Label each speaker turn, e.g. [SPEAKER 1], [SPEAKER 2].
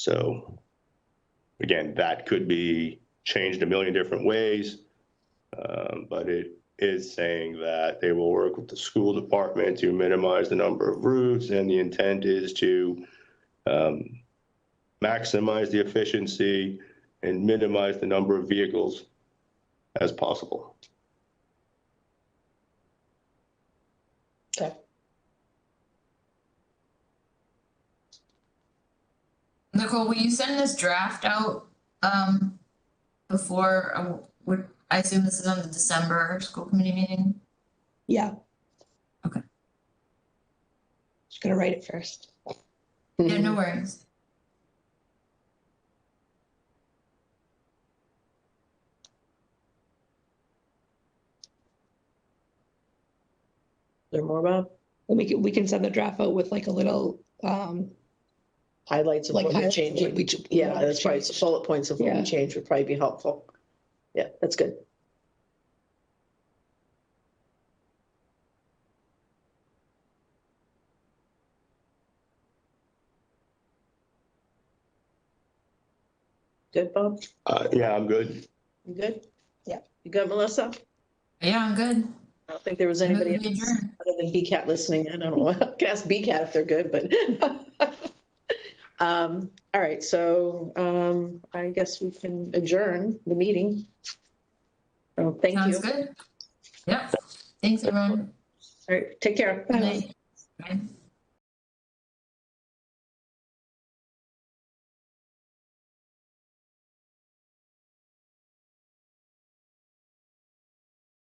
[SPEAKER 1] So again, that could be changed a million different ways. um, But it is saying that they will work with the school department to minimize the number of routes and the intent is to um, maximize the efficiency and minimize the number of vehicles as possible.
[SPEAKER 2] Okay.
[SPEAKER 3] Nicole, will you send this draft out, um, before, uh, would, I assume this is on the December school committee meeting?
[SPEAKER 2] Yeah.
[SPEAKER 3] Okay.
[SPEAKER 2] Just gonna write it first.
[SPEAKER 3] Yeah,
[SPEAKER 4] Mm-hmm.
[SPEAKER 3] no worries.
[SPEAKER 4] There more about
[SPEAKER 2] And we can, we can send the draft out with like a little, um,
[SPEAKER 4] highlights of
[SPEAKER 2] like.
[SPEAKER 4] what we
[SPEAKER 2] highlight
[SPEAKER 4] changed.
[SPEAKER 2] what we ch-
[SPEAKER 4] Yeah, that's probably some bullet points of what
[SPEAKER 2] Yeah.
[SPEAKER 4] we changed would probably be helpful. Yeah, that's good. Good, Bob?
[SPEAKER 1] Uh, Yeah, I'm good.
[SPEAKER 4] You good?
[SPEAKER 2] Yeah.
[SPEAKER 4] You good, Melissa?
[SPEAKER 3] Yeah, I'm good.
[SPEAKER 4] I don't think there was
[SPEAKER 3] Move
[SPEAKER 4] anybody
[SPEAKER 3] to
[SPEAKER 4] else
[SPEAKER 3] adjourn.
[SPEAKER 4] other than BCAT listening. I don't know. I can ask BCAT if they're good, but. Um, all right, so, um, I guess we can adjourn the meeting. Oh, thank you.
[SPEAKER 3] Sounds good. Yep. Thanks, everyone.
[SPEAKER 4] All right, take care.
[SPEAKER 3] Good night. Bye.